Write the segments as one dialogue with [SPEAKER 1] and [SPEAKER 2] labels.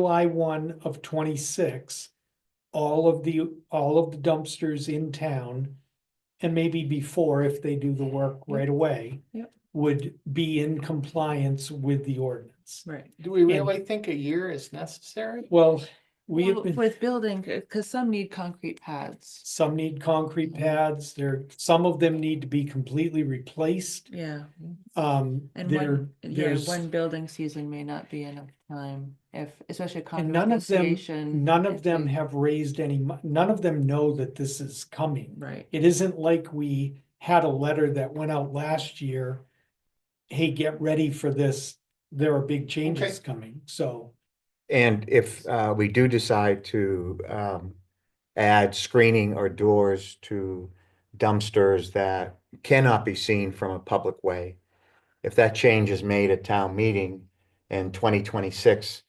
[SPEAKER 1] July one of twenty-six, all of the, all of the dumpsters in town, and maybe before if they do the work right away.
[SPEAKER 2] Yep.
[SPEAKER 1] Would be in compliance with the ordinance.
[SPEAKER 2] Right.
[SPEAKER 3] Do we
[SPEAKER 1] And-
[SPEAKER 3] really think a year is necessary?
[SPEAKER 1] Well, we have
[SPEAKER 2] Well,
[SPEAKER 1] been,
[SPEAKER 2] With building, because some need concrete pads.
[SPEAKER 1] some need concrete pads, there, some of them need to be completely replaced.
[SPEAKER 2] Yeah.
[SPEAKER 1] Um,
[SPEAKER 2] And
[SPEAKER 1] there,
[SPEAKER 2] one, yeah,
[SPEAKER 1] there's,
[SPEAKER 2] one building season may not be enough time if, especially a
[SPEAKER 1] And
[SPEAKER 2] condo
[SPEAKER 1] none of them-
[SPEAKER 2] association.
[SPEAKER 1] none of
[SPEAKER 2] if
[SPEAKER 1] them
[SPEAKER 2] you-
[SPEAKER 1] have raised any, mo- none of them know that this is coming.
[SPEAKER 2] Right.
[SPEAKER 1] It isn't like we had a letter that went out last year. Hey, get ready for this. There are big changes coming, so.
[SPEAKER 4] And if uh, we do decide to um, add screening or doors to dumpsters that cannot be seen from a public way, if that change is made at town meeting in twenty twenty-six,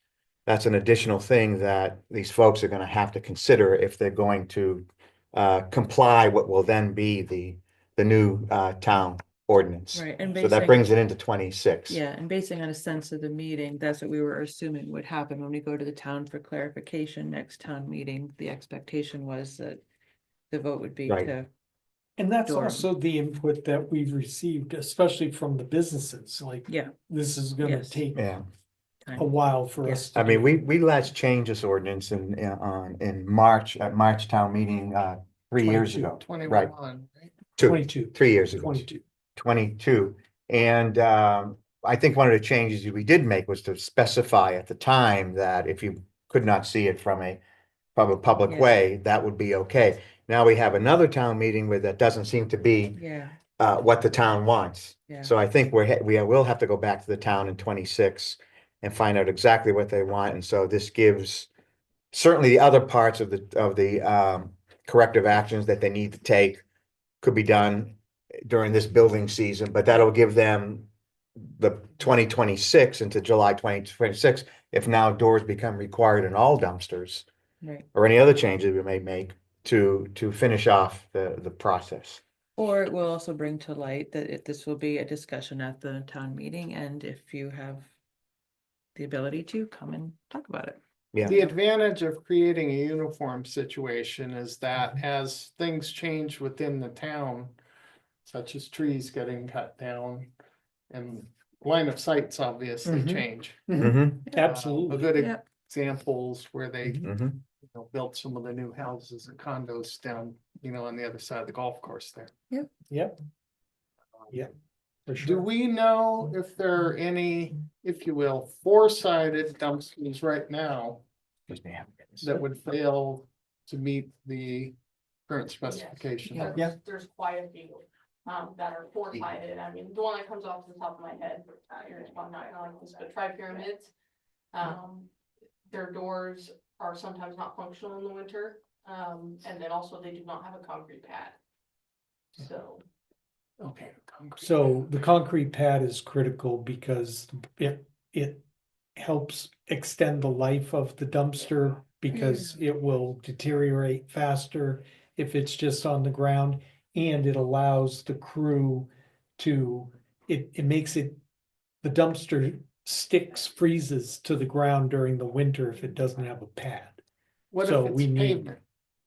[SPEAKER 4] that's an additional thing that these folks are gonna have to consider if they're going to uh, comply what will then be the, the new uh, town ordinance.
[SPEAKER 2] Right, and
[SPEAKER 4] So that
[SPEAKER 2] basing,
[SPEAKER 4] brings it into twenty-six.
[SPEAKER 2] yeah, and basing on a sense of the meeting, that's what we were assuming would happen when we go to the town for clarification next town meeting. The expectation was that the vote would be
[SPEAKER 4] Right.
[SPEAKER 2] to,
[SPEAKER 1] And that's
[SPEAKER 2] Sure.
[SPEAKER 1] also the input that we've received, especially from the businesses, like
[SPEAKER 2] yeah,
[SPEAKER 1] this is gonna
[SPEAKER 2] Yes.
[SPEAKER 1] take
[SPEAKER 4] Yeah.
[SPEAKER 1] a while for us. to
[SPEAKER 4] I mean,
[SPEAKER 1] do.
[SPEAKER 4] we, we last changed this ordinance in, in- on, in March, at March town meeting, uh, three years
[SPEAKER 1] 22,
[SPEAKER 4] ago. Right,
[SPEAKER 3] Twenty-one, right?
[SPEAKER 4] two,
[SPEAKER 1] Twenty-two,
[SPEAKER 4] three years ago,
[SPEAKER 1] twenty-two.
[SPEAKER 4] twenty-two. And, um, I think one of the changes we did make was to specify at the time that if you could not see it from a, from a public
[SPEAKER 2] Yeah.
[SPEAKER 4] way, that would be okay. Now we have another town meeting where that doesn't seem to be,
[SPEAKER 2] yeah,
[SPEAKER 4] uh, what the town wants.
[SPEAKER 2] yeah.
[SPEAKER 4] So I think we're, he- we will have to go back to the town in twenty-six and find out exactly what they want, and so this gives certainly the other parts of the, of the, um, corrective actions that they need to take could be done during this building season, but that'll give them the twenty twenty-six into July twenty twenty-six, if now doors become required in all dumpsters
[SPEAKER 2] Right.
[SPEAKER 4] or any other changes we may make to, to finish off the, the process.
[SPEAKER 2] Or it will also bring to light that it, this will be a discussion at the town meeting, and if you have the ability to come and talk about it.
[SPEAKER 4] Yeah.
[SPEAKER 3] The advantage of creating a uniform situation is
[SPEAKER 1] Mm-hmm.
[SPEAKER 3] that as things change within the town, such as trees getting cut down and line of sights obviously
[SPEAKER 1] Mhm.
[SPEAKER 3] change. Uh,
[SPEAKER 4] Mhm,
[SPEAKER 3] A
[SPEAKER 1] Absolutely. Mm-hmm.
[SPEAKER 3] good
[SPEAKER 2] Yep.
[SPEAKER 3] examples where they, you
[SPEAKER 4] mhm.
[SPEAKER 3] know, built some of the new houses and condos down, you know, on the other side of the golf course there. Um,
[SPEAKER 1] Yep, Yeah. for
[SPEAKER 3] Do
[SPEAKER 1] sure.
[SPEAKER 3] we know if there are any, if you will, four-sided dumpsters right now
[SPEAKER 4] Excuse me, I haven't gotten this.
[SPEAKER 3] that would fail to meet the current specification?
[SPEAKER 1] Yeah.
[SPEAKER 5] There's- There's quite a few, um, that are four sided, I mean, the one that comes off the top of my head, uh, you're just one night on this, but tri pyramids. Um, their doors are sometimes not functional in the winter, um, and then also they do not have a concrete pad. So,
[SPEAKER 3] Okay. concrete.
[SPEAKER 1] So the concrete pad is critical because it, it helps extend the life of the
[SPEAKER 3] Mm.
[SPEAKER 1] dumpster because it will deteriorate faster if it's just on the ground and it allows the crew to, it, it makes it, the dumpster sticks, freezes to the ground during the winter if it doesn't have a pad.
[SPEAKER 3] What
[SPEAKER 1] so
[SPEAKER 3] if it's
[SPEAKER 1] we need-
[SPEAKER 3] pavement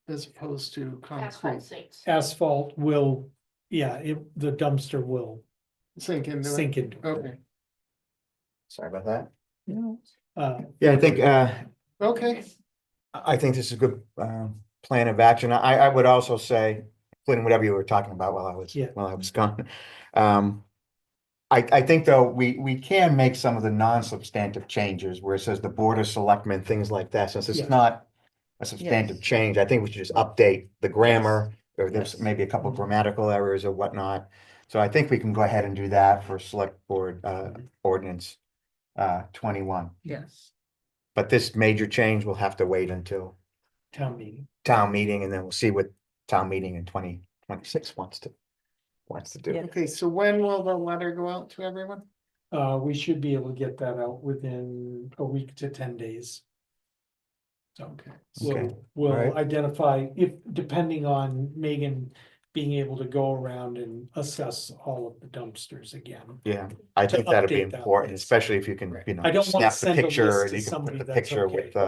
[SPEAKER 3] as opposed to
[SPEAKER 5] asphalt
[SPEAKER 3] concrete?
[SPEAKER 5] sinks.
[SPEAKER 1] Asphalt will, yeah, it, the dumpster will
[SPEAKER 3] Sink into it?
[SPEAKER 1] sink into it.
[SPEAKER 3] Okay,
[SPEAKER 4] Sorry about that.
[SPEAKER 1] Uh,
[SPEAKER 4] Yeah, I think, uh,
[SPEAKER 3] okay,
[SPEAKER 4] I I think this is a good, um, plan of action. I, I would also say, including whatever you were talking about while I was,
[SPEAKER 1] Yeah.
[SPEAKER 4] while I was gone. Um, I, I think though, we, we can make some of the non-substantive changes where it says the board of selectmen, things like that, since
[SPEAKER 1] Yes.
[SPEAKER 4] it's not a substantive
[SPEAKER 2] Yes.
[SPEAKER 4] change, I think we should just update the grammar, or there's
[SPEAKER 1] Yes. Mm-hmm.
[SPEAKER 4] maybe a couple grammatical errors or whatnot. So I think we can go ahead and do that for select board, uh,
[SPEAKER 1] Mm-hmm.
[SPEAKER 4] ordinance, uh, twenty-one.
[SPEAKER 2] Yes.
[SPEAKER 4] But this major change will have to wait until
[SPEAKER 1] town meeting.
[SPEAKER 4] town meeting and then we'll see what town meeting in twenty twenty-six wants to, wants to do.
[SPEAKER 3] okay, so when will the letter go out to everyone?
[SPEAKER 1] Uh, we should be able to get that out within a week to ten days. So,
[SPEAKER 3] Okay.
[SPEAKER 1] we'll,
[SPEAKER 4] Okay.
[SPEAKER 1] we'll
[SPEAKER 4] Alright.
[SPEAKER 1] identify if, depending on Megan being able to go around and assess all of the dumpsters again.
[SPEAKER 4] Yeah, I
[SPEAKER 1] To
[SPEAKER 4] think that'd be
[SPEAKER 1] update that
[SPEAKER 4] important,
[SPEAKER 1] list.
[SPEAKER 4] especially if you can,
[SPEAKER 3] Right.
[SPEAKER 4] you know,
[SPEAKER 1] I don't wanna
[SPEAKER 4] snap the
[SPEAKER 1] send a
[SPEAKER 4] picture
[SPEAKER 1] list
[SPEAKER 4] and
[SPEAKER 1] to
[SPEAKER 4] you can
[SPEAKER 1] somebody
[SPEAKER 4] put the
[SPEAKER 1] that's
[SPEAKER 4] picture
[SPEAKER 1] okay.
[SPEAKER 4] with the